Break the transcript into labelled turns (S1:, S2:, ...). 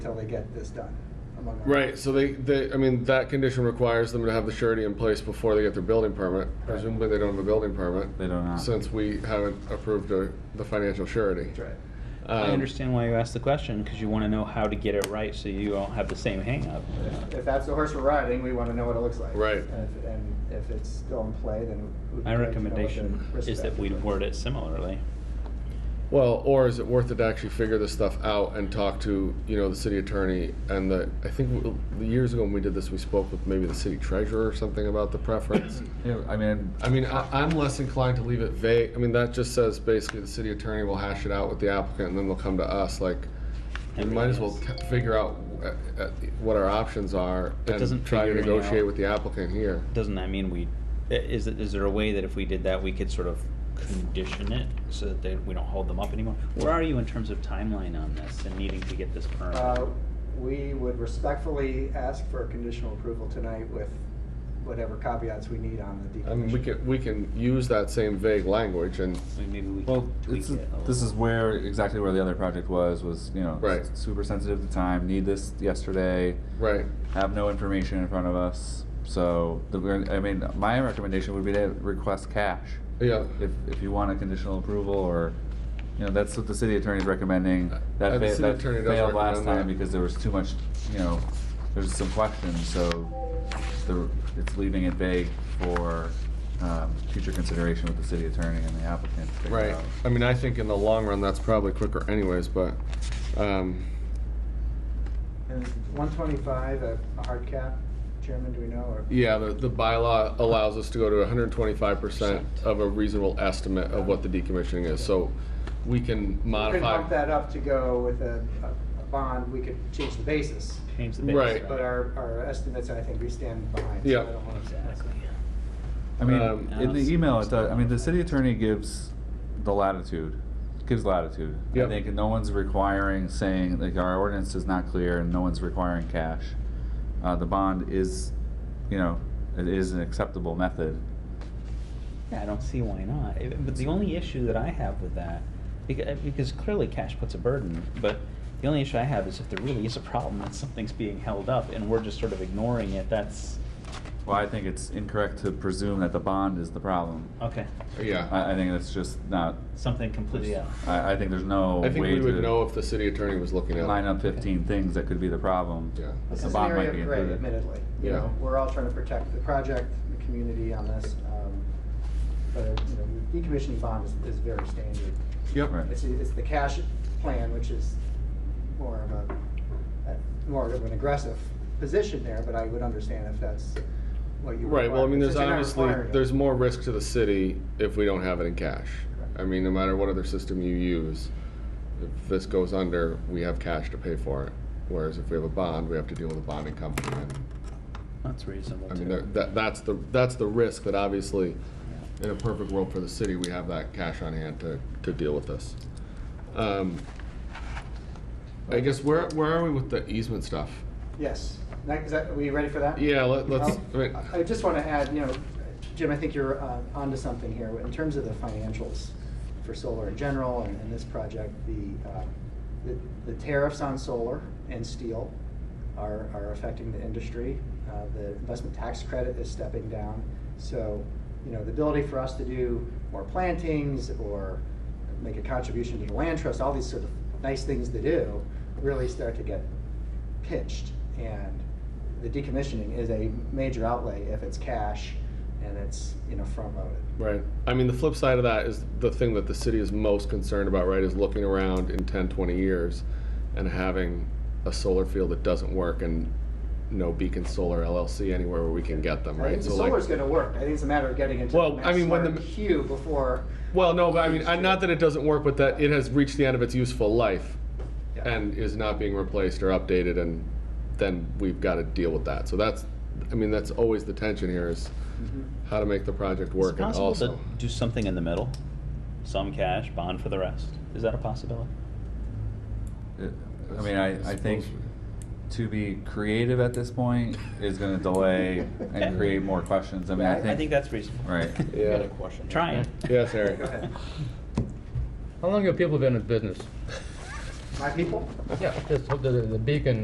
S1: till they get this done. among other-
S2: Right, so they, they, I mean, that condition requires them to have the surety in place before they get their building permit. Presumably, they don't have a building permit,
S3: They don't know.
S2: since we haven't approved a, the financial surety.
S1: That's right.
S2: Um,
S4: I understand why you asked the question because you want to know how to get it right so you don't have the same hangup.
S1: If- If that's the horse we're riding, we want to know what it looks like.
S2: Right.
S1: And if, and if it's still in play, then. it would be
S4: My
S1: great to know what the
S4: recommendation
S1: risk
S4: is that we
S1: factor
S4: word it similarly.
S2: Well, or is it worth it to actually figure this stuff out and talk to, you know, the city attorney and the, I think w- the years ago when we did this, we spoke with maybe the city treasurer or something about the preference.
S3: Yeah, I mean,
S2: I mean, I, I'm less inclined to leave it vague. I mean, that just says basically the city attorney will hash it out with the applicant and then they'll come to us, like, we might as well ca- figure out uh, uh, what our options are
S4: But
S2: and
S4: doesn't
S2: try to
S4: figuring
S2: negotiate
S4: out-
S2: with the applicant here.
S4: Doesn't that mean we, i- is, it- is there a way that if we did that, we could sort of condition it so that they, we don't hold them up anymore? Where are you in terms of timeline on this and needing to get this permit?
S1: Uh, We would respectfully ask for conditional approval tonight with whatever caveats we need on the decommission.
S2: I mean, we can, we can use that same vague language and,
S4: Like, Maybe we
S3: well,
S4: can tweak
S3: it's,
S4: it a little.
S3: this is where, exactly where the other project was, was, you know,
S2: Right.
S3: s- super sensitive to time, need this yesterday,
S2: right,
S3: have no information in front of us. So, the, we're- I mean, my recommendation would be to request cash.
S2: yeah.
S3: If, if you want a conditional approval or, you know, that's what the city attorney's recommending. That,
S2: Uh, the
S3: fa-
S2: city
S3: that
S2: attorney does
S3: failed last
S2: recommend
S3: time
S2: that.
S3: because there was too much, you know, there's some questions, so the, it's leaving it vague for, um, future consideration with the city attorney and the applicant. to figure
S2: Right.
S3: out.
S2: I mean, I think in the long run, that's probably quicker anyways, but, um,
S1: And 125, a a hard cap, Chairman, do we know, or?
S2: yeah, the, the bylaw allows us to go to hundred and twenty-five percent of a reasonable estimate of what the decommissioning is, so we can
S1: We could bump
S2: modify.
S1: that up to go with a, a- a bond, we could change the basis,
S4: Change the base,
S2: right.
S1: but our, our estimates, I think, we stand behind. so I
S2: Yeah.
S1: don't wanna-
S4: Exactly.
S3: I mean,
S2: Um,
S3: in the
S4: Yes.
S3: email, it does, I mean, the city attorney gives the latitude, gives latitude. I
S2: Yep.
S3: think no one's requiring, saying, like, our ordinance is not clear and no one's requiring cash. Uh, the bond is, you know, it is an acceptable method.
S4: Yeah, I don't see why not. I- But the only issue that I have with that, because, because clearly cash puts a burden, but the only issue I have is if there really is a problem that something's being held up and we're just sort of ignoring it, that's,
S3: Well, I think it's incorrect to presume that the bond is the problem.
S4: okay,
S2: Yeah.
S3: I, I think that's just not,
S4: something completely out.
S3: I, I think there's no
S2: I think
S3: way
S2: we would know
S3: to
S2: if the city attorney was looking at it.
S3: line up fifteen things that could be the problem.
S2: Yeah.
S3: but
S1: This
S3: The
S1: is an
S3: bond might
S1: area
S3: be
S1: of gray,
S3: included.
S1: admittedly. You
S2: Yeah.
S1: know, we're all trying to protect the project, the community on this. um, But, you know, the decommissioning bond is, is very standard.
S2: Yep.
S3: Right.
S1: It's, it's the cash plan, which is more of a, a- more of an aggressive position there, but I would understand if that's what you.
S2: Right, well, I
S1: require.
S2: mean, there's
S1: Since you're not
S2: obviously,
S1: requiring it.
S2: there's more risk to the city if we don't have it in cash.
S1: Correct.
S2: I mean, no matter what other system you use, if this goes under, we have cash to pay for it. Whereas if we have a bond, we have to deal with a bonding company. And,
S4: That's reasonable
S2: I mean,
S4: too.
S2: that- that, that's the, that's the risk that obviously,
S4: Yeah.
S2: in a perfect world for the city, we have that cash on hand to, to deal with this. Um, I guess, where, where are we with the easement stuff?
S1: Yes. Next, is that, are we ready for that?
S2: Yeah, let- let's, I mean,
S1: I I just want to add, you know, Jim, I think you're uh, onto something here. In terms of the financials for solar in general and and this project, the, uh, the- the tariffs on solar and steel are, are affecting the industry. Uh, The investment tax credit is stepping down. So, you know, the ability for us to do more plantings or make a contribution to the land trust, all these sort of nice things to do, really start to get pitched. And the decommissioning is a major outlay if it's cash and it's, you know, front loaded.
S2: Right. I mean, the flip side of that is the thing that the city is most concerned about, right, is looking around in 10, 20 years and having a solar field that doesn't work and no Beacon Solar LLC anywhere where we can get them,
S1: I
S2: right?
S1: think the
S2: So like-
S1: solar's gonna work. I think it's a matter of getting into
S2: Well,
S1: the
S2: I mean, when
S1: maximum
S2: the-
S1: queue before.
S2: Well, no, but I mean, I- not that it doesn't work, but that it has reached the end of its useful life
S1: yeah.
S2: and is not being replaced or updated, and then we've got to deal with that. So that's, I mean, that's always the tension here is
S1: Mhm.
S2: how to make the project
S4: Is it
S2: work and
S4: possible to
S2: also.
S4: do something in the middle? Some cash, bond for the rest. Is that a possibility?
S3: It- I mean, I, I think to be creative at this point is gonna delay and create more questions. I mean, I think.
S4: I think that's reasonable.
S3: Right.
S2: Yeah.
S5: Got a question.
S4: Trying.
S2: Yes, Eric.
S1: Go ahead.
S5: How long have people been in business?
S1: My people?
S5: Yeah, this, the, the beacon